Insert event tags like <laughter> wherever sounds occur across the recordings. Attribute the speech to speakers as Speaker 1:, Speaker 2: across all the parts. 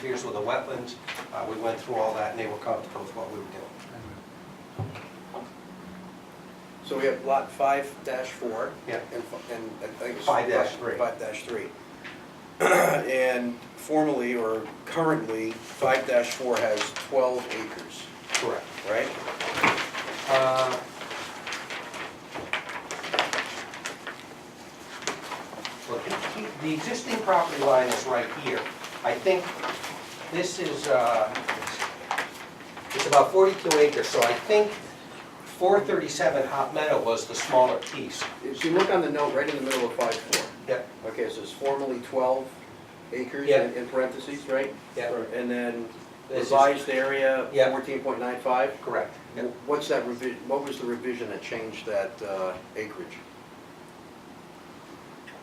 Speaker 1: Here's with the wetlands, Uh, we went through all that, and they were comfortable with what we were doing.
Speaker 2: So we have lot five dash four.
Speaker 1: Yeah.
Speaker 2: And, fi- and I think it's.
Speaker 1: Five dash three.
Speaker 2: Five dash three. <clears throat> And formally or currently, five dash four has twelve acres,
Speaker 1: Correct.
Speaker 2: right?
Speaker 1: Uh, Look, the- the existing property line is right here. I think this is, uh, it's about 42 acres, so I think 437 Hot Meadow was the smaller piece.
Speaker 2: If you look on the note, right in the middle of five four.
Speaker 1: Yeah.
Speaker 2: Okay, so it's formally twelve acres
Speaker 1: Yeah.
Speaker 2: in in parentheses, right?
Speaker 1: Yeah.
Speaker 2: And then
Speaker 1: This is-
Speaker 2: revised area,
Speaker 1: Yeah.
Speaker 2: fourteen point nine five?
Speaker 1: Correct. Yeah.
Speaker 2: What's that revision, what was the revision that changed that uh, acreage?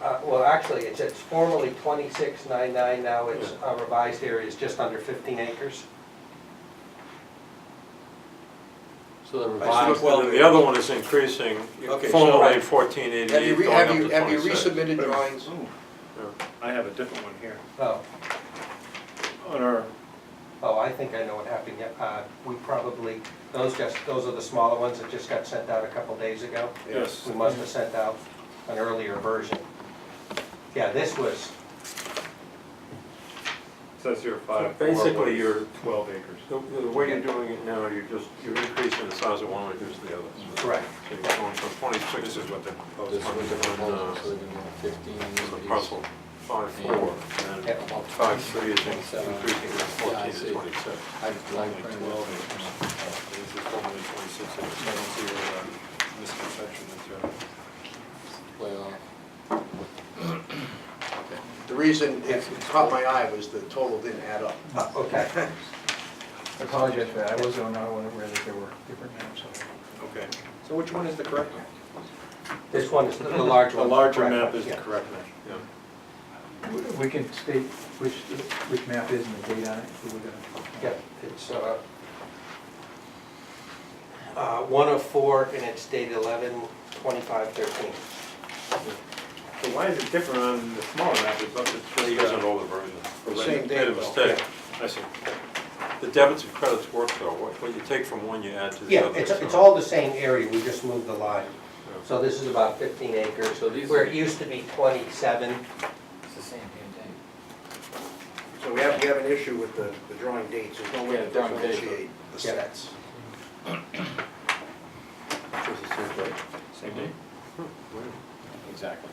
Speaker 1: Uh, Well, actually, it's it's formerly 2699, now it's uh, revised area is just under 15 acres.
Speaker 3: So the
Speaker 2: I
Speaker 3: revised,
Speaker 2: see. Well,
Speaker 4: The other one is increasing,
Speaker 2: Okay, so-
Speaker 4: formerly fourteen eighty-eight
Speaker 2: re-
Speaker 4: going up
Speaker 2: you-
Speaker 4: to
Speaker 2: have you
Speaker 4: twenty-six.
Speaker 2: resubmitted drawings?
Speaker 5: I have a different one here.
Speaker 1: Oh,
Speaker 5: On our,
Speaker 1: Oh, I think I know what happened, yeah, uh, we probably, those just, those are the smaller ones that just got sent out a couple days ago.
Speaker 5: yes,
Speaker 1: We must have sent out an earlier version. Yeah, this was,
Speaker 5: says here five.
Speaker 4: So basically
Speaker 5: four,
Speaker 4: you're-
Speaker 5: Twelve acres.
Speaker 4: The, the way you're doing it now, you're just, you're increasing the size of one, reducing the other.
Speaker 1: correct,
Speaker 4: So you're going from twenty-six is what the,
Speaker 3: this was the proposal, so
Speaker 4: on,
Speaker 3: they're gonna have fifteen,
Speaker 4: uh, the
Speaker 3: these-
Speaker 4: parcel, five four, and
Speaker 1: Yeah.
Speaker 4: five three is in-
Speaker 3: Twenty-seven.
Speaker 4: increasing from
Speaker 3: Yeah, I
Speaker 4: fourteen
Speaker 3: see.
Speaker 4: to twenty-six.
Speaker 3: I just like
Speaker 5: Only
Speaker 3: printed
Speaker 5: twelve
Speaker 3: it.
Speaker 5: This is formerly twenty-six acres, I don't see where, uh, misconception is there.
Speaker 3: Well,
Speaker 2: The reason it caught my eye was the total didn't add up.
Speaker 1: Uh, okay.
Speaker 6: I Apologize for that, I was on, I wasn't aware that there were different maps.
Speaker 5: Okay.
Speaker 4: So which one is the correct one?
Speaker 1: This one is the the large
Speaker 5: The
Speaker 1: one.
Speaker 5: larger
Speaker 1: correct,
Speaker 5: map is the
Speaker 1: yeah.
Speaker 5: correct map.
Speaker 4: Yeah.
Speaker 6: We- We can state which, which map is and the date on it, so we're gonna.
Speaker 1: Yeah, it's, uh, uh, one of four, and it's dated eleven twenty-five thirteen.
Speaker 5: So why is it different on the smaller map, it's up to
Speaker 4: They
Speaker 5: three
Speaker 4: use
Speaker 5: years
Speaker 4: an
Speaker 5: old?
Speaker 4: older version.
Speaker 2: Same
Speaker 4: Made
Speaker 2: date,
Speaker 4: a
Speaker 2: though.
Speaker 4: mistake.
Speaker 5: I see.
Speaker 4: The debits and credits work though, what, what you take from one, you add to the
Speaker 1: Yeah,
Speaker 4: other.
Speaker 1: it's,
Speaker 4: so-
Speaker 1: it's all the same area, we just moved the line. So this is about fifteen acres,
Speaker 3: So these
Speaker 1: where
Speaker 3: are-
Speaker 1: it used to be twenty-seven.
Speaker 3: it's the same damn thing.
Speaker 2: So we have, we have an issue with the, the drawing dates, there's no way
Speaker 3: Yeah,
Speaker 2: to
Speaker 3: drawing date, but-
Speaker 2: differentiate the
Speaker 1: Yeah.
Speaker 2: sets.
Speaker 5: Same date?
Speaker 3: Exactly.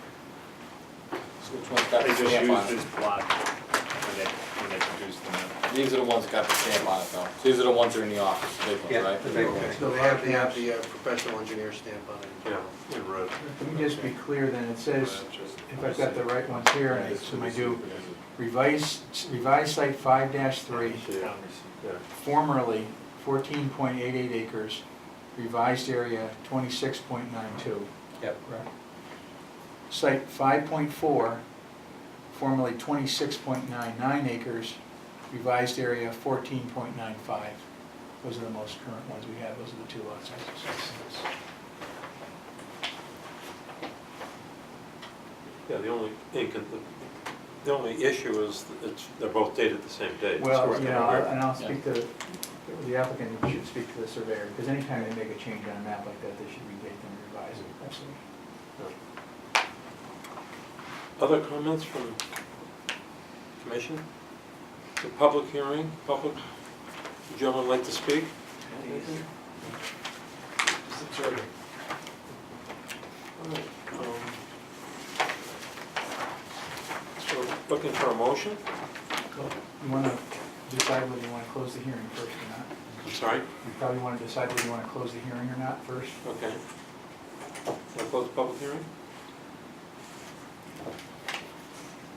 Speaker 3: So which one's got
Speaker 5: They
Speaker 3: the
Speaker 5: just
Speaker 3: stamp on
Speaker 5: used
Speaker 3: it?
Speaker 5: this plot when they, when they produced the map.
Speaker 3: These are the ones that got the stamp on it though. These are the ones that are in the office, the big
Speaker 1: Yeah,
Speaker 3: ones, right?
Speaker 1: the big ones.
Speaker 2: Okay, so they have, they have the uh, professional engineer stamp on it.
Speaker 4: Yeah, in red.
Speaker 6: Let me just be clear then, it says, if I've got the right ones here, and I assume I do, revised, revised site five three,
Speaker 4: Yeah, yeah.
Speaker 6: formerly fourteen point eight eight acres, revised area twenty-six point nine two.
Speaker 1: Yep.
Speaker 6: Correct. Site five point four, formerly twenty-six point nine nine acres, revised area fourteen point nine five. Those are the most current ones we have, those are the two lots.
Speaker 4: Yeah, the only, incon- the- the only issue is that it's, they're both dated the same date.
Speaker 6: Well,
Speaker 4: Correct.
Speaker 6: you know, I'll- and I'll speak to, the applicant should speak to the surveyor, because anytime they make a change on a map like that, they should redate them, and revise it, absolutely.
Speaker 4: Other comments from commission? The public hearing, public, would you gentlemen like to speak? All right, um, So looking for a motion?
Speaker 6: You want to decide whether you want to close the hearing first or not.
Speaker 4: I'm sorry?
Speaker 6: You probably want to decide whether you want to close the hearing or not first.
Speaker 4: Okay. Want to close the public hearing?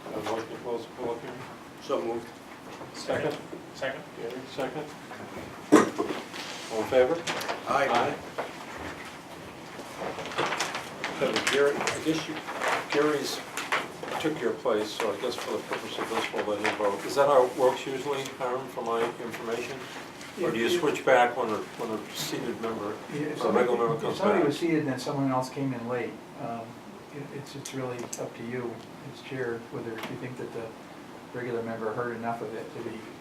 Speaker 4: Have a motion to close the public hearing?
Speaker 2: So moved.
Speaker 4: Second?
Speaker 5: Second?
Speaker 4: Gary, second. All in favor?
Speaker 2: Aye.
Speaker 4: So Gary, I guess you, Gary's took your place, so I guess for the purpose of this, we'll let him vote. Is that how it works usually, Hiram, for my information? Or do you switch back when a, when a seated member,
Speaker 6: Yeah,
Speaker 4: a
Speaker 6: If somebody-
Speaker 4: regular member
Speaker 6: if
Speaker 4: comes
Speaker 6: somebody was
Speaker 4: back?
Speaker 6: seated and then someone else came in late, um, it- it's, it's really up to you as chair, whether you think that the regular member heard enough of it to be